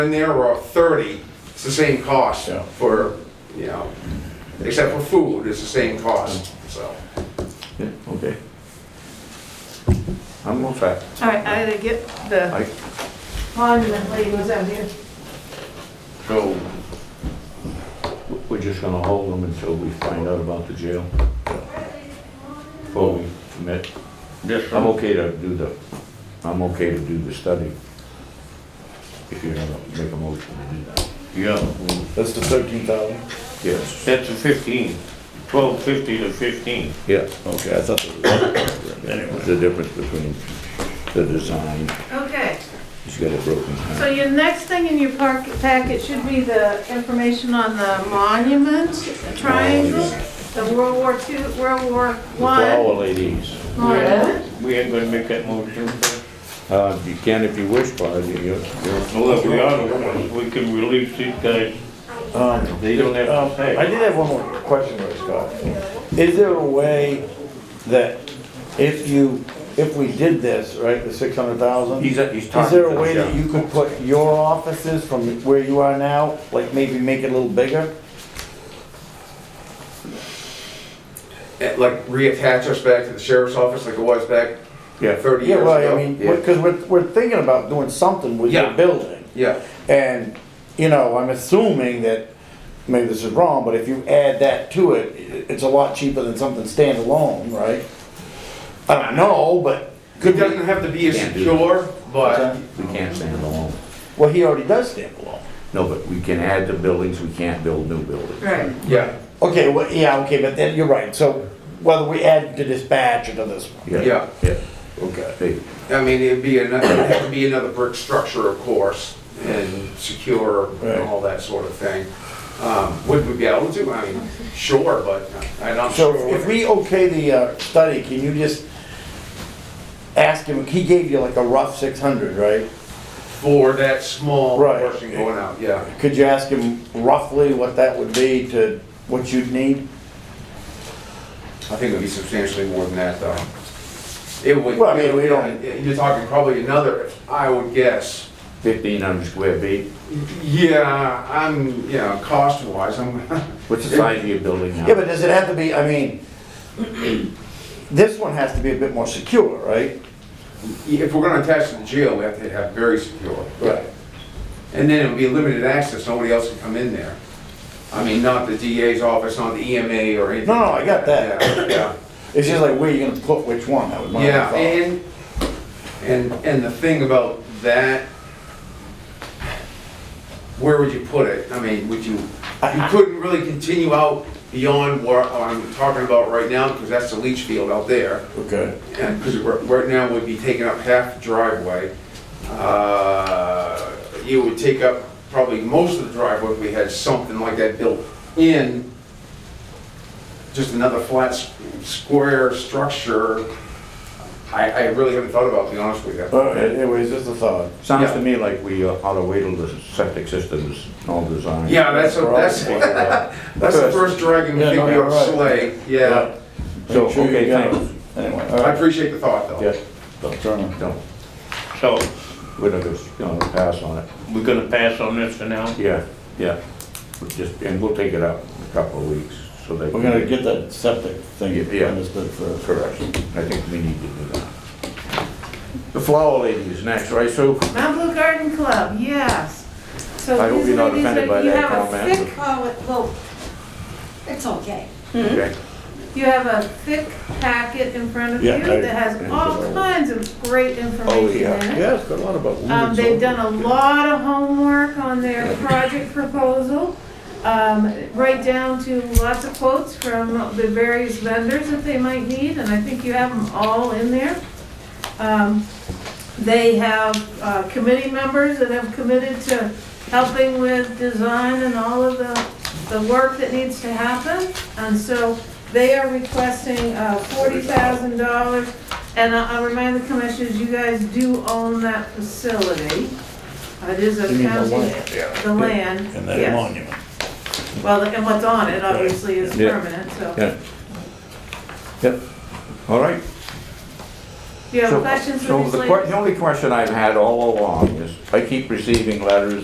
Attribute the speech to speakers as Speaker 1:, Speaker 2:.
Speaker 1: in there or 30, it's the same cost
Speaker 2: Yeah.
Speaker 1: for, you know, except for food, it's the same cost,
Speaker 3: Mm.
Speaker 1: so.
Speaker 2: Yeah, okay. I'm all set.
Speaker 4: All right, I gotta get the
Speaker 2: I,
Speaker 4: monument labels out here.
Speaker 2: so, w- we're just gonna hold them until we find out about the jail? Before we commit?
Speaker 5: This
Speaker 2: I'm
Speaker 5: one,
Speaker 2: okay to do the, I'm okay to do the study. If you're gonna make a motion to do that.
Speaker 5: yeah,
Speaker 3: That's the thirteen thousand?
Speaker 2: Yes.
Speaker 5: that's a fifteen, twelve fifty to fifteen.
Speaker 2: Yeah,
Speaker 3: Okay, I thought. that
Speaker 2: that's the difference between the design,
Speaker 4: Okay,
Speaker 2: he's got it broken down.
Speaker 4: so your next thing in your park packet should be the information on the monument triangle, the World War II, World War
Speaker 2: The
Speaker 4: One
Speaker 2: flower ladies,
Speaker 4: monument.
Speaker 5: We ain't gonna make that motion.
Speaker 2: uh, you can if you wish, but you, you
Speaker 5: Well, if we ought, we can release these guys,
Speaker 3: was- Um,
Speaker 5: Uh, they don't have to
Speaker 3: I
Speaker 5: pay.
Speaker 3: did have one more question, though, Scott. Is there a way that if you, if we did this, right, the six hundred thousand?
Speaker 2: He's, uh,
Speaker 3: Is
Speaker 2: he's talking.
Speaker 3: there
Speaker 2: to
Speaker 3: a
Speaker 2: the
Speaker 3: way that
Speaker 2: judge.
Speaker 3: you could put your offices from where you are now, like maybe make it a little bigger?
Speaker 1: eh, Like reattach us back to the sheriff's office like it was back
Speaker 2: Yeah,
Speaker 1: 30
Speaker 3: Yeah,
Speaker 1: years
Speaker 3: right, I
Speaker 1: ago.
Speaker 3: mean, because we're, we're thinking about doing something with
Speaker 1: Yeah.
Speaker 3: your building.
Speaker 1: Yeah,
Speaker 3: And, you know, I'm assuming that, maybe this is wrong, but if you add that to it, i- it's a lot cheaper than something standalone, right? I don't know, but
Speaker 1: it
Speaker 3: could
Speaker 1: doesn't
Speaker 3: be,
Speaker 1: have to be as
Speaker 2: Can't do
Speaker 1: secure, but
Speaker 2: we can't stand alone.
Speaker 3: well, he already does standalone.
Speaker 2: No, but we can add the buildings, we can't build new buildings.
Speaker 4: Right,
Speaker 1: yeah,
Speaker 3: Okay, well, yeah, okay, but then, you're right, so whether we add to dispatch or to this one,
Speaker 1: Yeah.
Speaker 2: Yeah,
Speaker 3: okay.
Speaker 2: Hey,
Speaker 1: I mean, it'd be, ano- it'd have to be another brick structure, of course, and secure and
Speaker 3: Right.
Speaker 1: all that sort of thing. Um, Would we be able to? I mean, sure, but I'm not
Speaker 3: So
Speaker 1: sure.
Speaker 3: if we okay the uh, study, can you just ask him, he gave you like a rough six hundred, right?
Speaker 1: For that small
Speaker 3: Right.
Speaker 1: portion going out, yeah.
Speaker 3: Could you ask him roughly what that would be to what you'd need?
Speaker 1: I think it would be substantially more than that, though. It would. uh,
Speaker 3: Well, I mean, we don't-
Speaker 1: You're talking probably another, I would guess.
Speaker 2: fifteen hundred square feet,
Speaker 1: Yeah, I'm, you know, cost-wise, I'm,
Speaker 2: what's the size of your building now?
Speaker 3: Yeah, but does it have to be, I mean, this one has to be a bit more secure, right?
Speaker 1: if we're gonna attach to the jail, we have to have very secure.
Speaker 3: Right.
Speaker 1: And then it would be limited access, nobody else can come in there. I mean, not the DA's office, not the EMA or anything.
Speaker 3: No, no, I got that.
Speaker 1: Yeah, Yeah.
Speaker 3: It's just like, where you gonna put which one, that was my
Speaker 1: Yeah,
Speaker 3: thought.
Speaker 1: and, and, and the thing about that, where would you put it? I mean, would you, you couldn't really continue out beyond what I'm talking about right now, because that's the leach field out there.
Speaker 3: Okay,
Speaker 1: And, because right now we'd be taking up half the driveway. Uh, You would take up probably most of the driveway if we had something like that built in. Just another flat s- square structure. I, I really haven't thought about, it, to be honest with you.
Speaker 3: all right, anyways, just a thought.
Speaker 2: Sounds to me like we uh, ought to wait till the septic system is all designed.
Speaker 1: Yeah, that's, a- that's, that's the first dragon we
Speaker 3: Yeah,
Speaker 1: think
Speaker 3: no,
Speaker 1: we
Speaker 3: you're
Speaker 1: ought to
Speaker 3: right.
Speaker 1: slay, yeah.
Speaker 2: So,
Speaker 3: Make sure you
Speaker 2: okay,
Speaker 3: got it.
Speaker 2: thanks.
Speaker 3: Anyway, all
Speaker 1: I
Speaker 3: right.
Speaker 1: appreciate the thought, though.
Speaker 3: Yeah, don't turn them.
Speaker 2: No,
Speaker 5: So,
Speaker 2: we're not gonna, gonna pass on it,
Speaker 5: we're gonna pass on this for now?
Speaker 2: yeah, yeah. We'll Just, and we'll take it out in a couple of weeks, so they.
Speaker 3: We're gonna get that septic thing
Speaker 2: Yeah.
Speaker 3: understood first.
Speaker 2: Correct, I think we need to do that. The flower lady is next, right, Sue?
Speaker 4: Mount Blue Garden Club, yes. So
Speaker 2: I hope
Speaker 4: these
Speaker 2: you're not
Speaker 4: ladies
Speaker 2: offended
Speaker 4: are-
Speaker 2: by
Speaker 4: you
Speaker 2: that
Speaker 4: have a
Speaker 2: comment,
Speaker 4: thick-
Speaker 6: Oh, it- well, it's okay.
Speaker 2: Okay.
Speaker 4: You have a thick packet in front of you
Speaker 3: Yeah, I-
Speaker 4: that has all kinds of great information in it.
Speaker 2: Oh, Yeah, it's got a lot about.
Speaker 4: Um, they've done a lot of homework on their project proposal, um, right down to lots of quotes from the various vendors that they might need, and I think you have them all in there. Um, they have, uh, committee members that have committed to helping with design and all of the, the work that needs to happen. And so they are requesting, uh, forty thousand dollars and I- I'll remind the commissioners, you guys do own that facility. It is a
Speaker 3: You mean the
Speaker 4: county,
Speaker 3: land, yeah.
Speaker 4: the land,
Speaker 3: And that
Speaker 4: yes.
Speaker 3: monument.
Speaker 4: Well, and what's on it obviously is
Speaker 2: Yeah.
Speaker 4: permanent, so.
Speaker 2: Yeah. Yep, all right.
Speaker 4: Do you have
Speaker 2: So-
Speaker 4: questions for
Speaker 2: so
Speaker 4: these
Speaker 2: the que-
Speaker 4: ladies?
Speaker 2: The only question I've had all along is, I keep receiving letters